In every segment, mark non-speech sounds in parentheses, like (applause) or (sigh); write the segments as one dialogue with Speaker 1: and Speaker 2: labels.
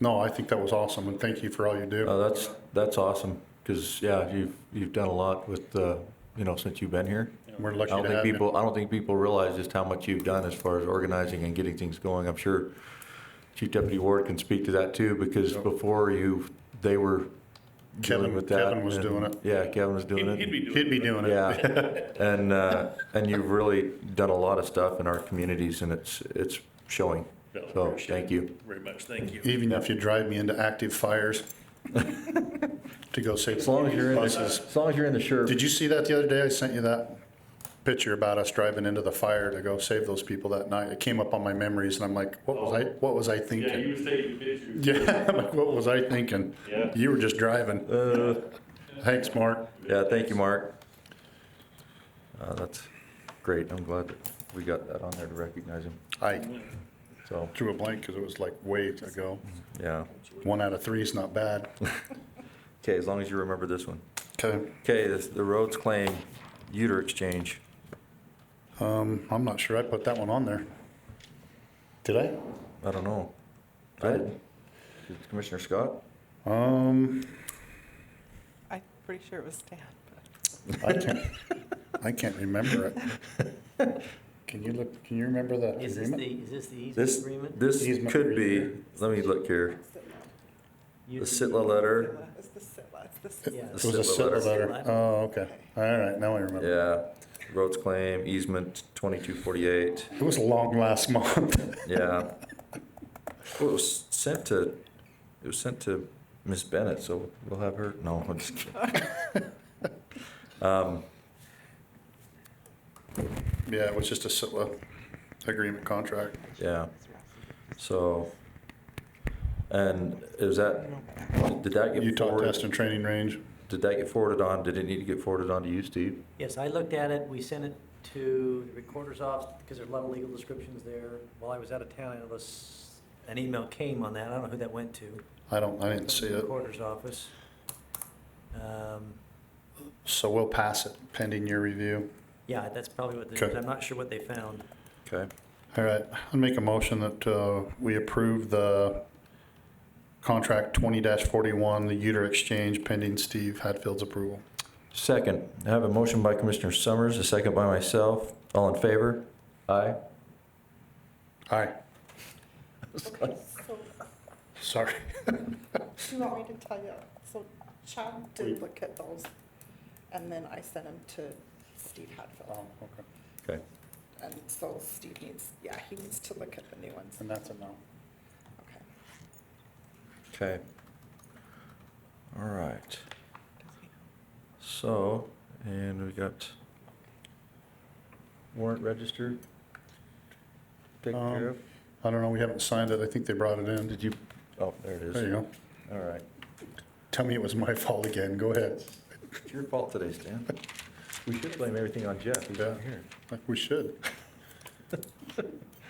Speaker 1: No, I think that was awesome, and thank you for all you do.
Speaker 2: Uh, that's, that's awesome, because, yeah, you've, you've done a lot with, uh, you know, since you've been here.
Speaker 1: We're
Speaker 2: I
Speaker 1: lucky
Speaker 2: don't
Speaker 1: to
Speaker 2: think
Speaker 1: have you.
Speaker 2: people, I don't think people realize just how much you've done as far as organizing and getting things going. I'm sure Chief Deputy Ward can speak to that too, because
Speaker 1: Yep.
Speaker 2: before you, they were dealing
Speaker 1: Kevin-
Speaker 2: with that.
Speaker 1: Kevin was
Speaker 2: and-
Speaker 1: doing it.
Speaker 2: Yeah, Kevin was doing it.
Speaker 3: He'd he'd be doing it.
Speaker 1: He'd be doing it. (laughs)
Speaker 2: Yeah, (laughs) and, uh, and you've really done a lot of stuff in our communities, and it's, it's showing.
Speaker 3: Yeah,
Speaker 2: So,
Speaker 3: appreciate
Speaker 2: thank
Speaker 3: it
Speaker 2: you.
Speaker 3: Very much, thank you.
Speaker 1: Even if you drive me into active fires
Speaker 2: (laughs)
Speaker 1: to go save
Speaker 2: As long as you're in, the-
Speaker 1: buses.
Speaker 2: as long as you're in the shirt.
Speaker 1: Did you see that the other day? I sent you that picture about us driving into the fire to go save those people that night. It came up on my memories, and I'm like, what was I? What was I
Speaker 3: Yeah, you
Speaker 1: thinking?
Speaker 3: were taking pictures.
Speaker 1: (laughs) Yeah, I'm like, what was I thinking?
Speaker 3: Yeah.
Speaker 1: You were just driving.
Speaker 2: Uh.
Speaker 1: Thanks, Mark.
Speaker 2: Yeah, thank you, Mark. Uh, that's great. I'm glad that we got that on there to recognize him.
Speaker 1: I
Speaker 2: So,
Speaker 1: drew a blank because it was like way ago.
Speaker 2: yeah.
Speaker 1: One out of three is not
Speaker 2: (laughs)
Speaker 1: bad.
Speaker 2: Okay, as long as you remember this one.
Speaker 1: Okay,
Speaker 2: Okay, this, the roads claim Uter Exchange.
Speaker 1: um, I'm not sure I put that one on there. Did I?
Speaker 2: I don't know. I didn't. Did Commissioner Scott?
Speaker 1: Um,
Speaker 4: I'm pretty sure it was Stan.
Speaker 1: I can't, I can't remember it. Can you look, can you remember the
Speaker 5: Is this the,
Speaker 1: agreement?
Speaker 5: is this the easement
Speaker 2: This,
Speaker 5: agreement?
Speaker 2: this
Speaker 1: Easement
Speaker 2: could be,
Speaker 1: agreement.
Speaker 2: let me look here. The
Speaker 5: You-
Speaker 2: Sitla letter,
Speaker 4: It's the Sitla, it's the
Speaker 5: Yeah.
Speaker 4: Sitla.
Speaker 1: It
Speaker 2: the
Speaker 1: was a
Speaker 2: Sitla
Speaker 1: civil
Speaker 2: letter.
Speaker 1: letter. Oh, okay. All right, now I remember.
Speaker 2: Yeah, roads claim easement twenty-two forty-eight.
Speaker 1: It was long last month. (laughs)
Speaker 2: Yeah. Well, it was sent to, it was sent to Miss Bennett, so we'll have her, no, I'm just kidding. Um,
Speaker 1: Yeah, it was just a CITLA agreement contract.
Speaker 2: yeah, so, and is that, did that get
Speaker 1: Utah Test
Speaker 2: forwarded?
Speaker 1: and Training Range.
Speaker 2: Did that get forwarded on, did it need to get forwarded on to you, Steve?
Speaker 5: Yes, I looked at it, we sent it to the recorder's office, because there's a lot of legal descriptions there. While I was out of town, it was, an email came on that, I don't know who that went to.
Speaker 1: I don't, I didn't see
Speaker 5: The
Speaker 1: it.
Speaker 5: Recorder's office. Um,
Speaker 1: So we'll pass it pending your review.
Speaker 5: Yeah, that's probably what,
Speaker 1: Okay.
Speaker 5: the- I'm not sure what they found.
Speaker 2: Okay,
Speaker 1: All right, I'll make a motion that uh, we approve the contract twenty forty-one, the Uter Exchange pending Steve Hatfield's approval.
Speaker 2: second, I have a motion by Commissioner Summers, a second by myself, all in favor? Aye.
Speaker 1: Aye. Sorry.
Speaker 4: Do you want me to tell you? So Chad did look at those, and then I sent them to Steve Hatfield.
Speaker 1: Oh, okay.
Speaker 2: Okay,
Speaker 4: And so Steve needs, yeah, he needs to look at the new ones.
Speaker 1: And that's a no.
Speaker 4: Okay.
Speaker 2: okay. All right. So, and we got warrant register taken
Speaker 1: Um,
Speaker 2: care of.
Speaker 1: I don't know, we haven't signed it. I think they brought it in.
Speaker 2: Did you, oh, there it is.
Speaker 1: There you go.
Speaker 2: All right.
Speaker 1: Tell me it was my (laughs) fault again. Go ahead.
Speaker 2: It's your fault today, Stan. We should blame everything on Jeff. He's not
Speaker 1: Yeah.
Speaker 2: here.
Speaker 1: Like we
Speaker 6: (laughs)
Speaker 1: should.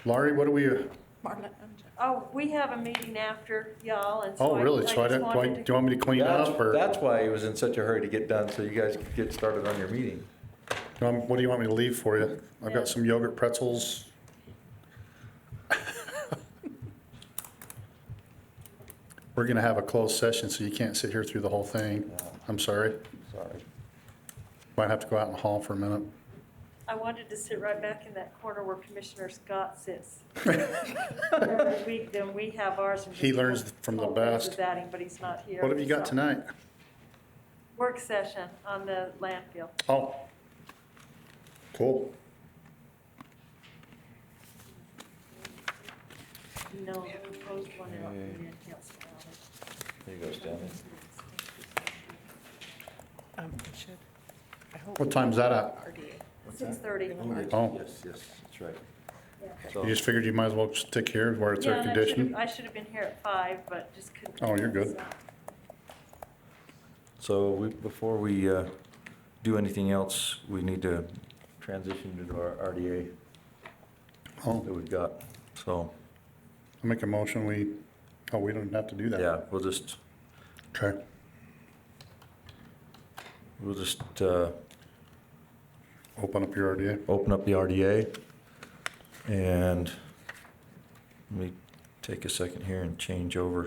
Speaker 1: Laurie, what do we, oh,
Speaker 4: Marla and Jeff.
Speaker 6: Oh, we have a meeting after y'all, and so
Speaker 1: oh,
Speaker 6: I
Speaker 1: really? So I
Speaker 6: just
Speaker 1: don't, do I-
Speaker 6: wanted
Speaker 1: do
Speaker 6: to-
Speaker 1: you want me to clean
Speaker 2: That's,
Speaker 1: up or?
Speaker 2: that's why he was in such a hurry to get done, so you guys could get started on your meeting.
Speaker 1: Um, What do you want me to leave for you? I've
Speaker 6: Yeah.
Speaker 1: got some yogurt pretzels. We're gonna have a closed session, so you can't sit here through the whole thing. I'm sorry.
Speaker 2: Uh, Sorry.
Speaker 1: Might have to go out in the hall for a minute.
Speaker 6: I wanted to sit right back in that corner where Commissioner Scott sits. (laughs) Every week, then we have ours. and
Speaker 1: He
Speaker 6: just
Speaker 1: learns from the
Speaker 6: hold things
Speaker 1: best.
Speaker 6: About him, but he's not here.
Speaker 1: What have you got
Speaker 6: so.
Speaker 1: tonight?
Speaker 6: Work session on the landfill.
Speaker 1: Oh. Cool.
Speaker 6: No, the proposed one out in the council.
Speaker 2: There you go, Stan.
Speaker 4: Um, it should. I hope.
Speaker 1: What time's that at?
Speaker 4: RDA.
Speaker 6: Six thirty.
Speaker 1: Oh.
Speaker 2: Yes, yes, that's right.
Speaker 1: You just figured you might as well stick here where it's air conditioned?
Speaker 6: I should have been here at five, but just couldn't.
Speaker 1: Oh, you're good.
Speaker 6: So-
Speaker 2: So we, before we uh, do anything else, we need to transition to our RDA
Speaker 1: Oh,
Speaker 2: that we've got. So,
Speaker 1: I make a motion, we, oh, we don't have to do that.
Speaker 2: yeah, we'll just,
Speaker 1: Okay.
Speaker 2: we'll just uh,
Speaker 1: Open up your RDA.
Speaker 2: open up the RDA. And let me take a second here and change over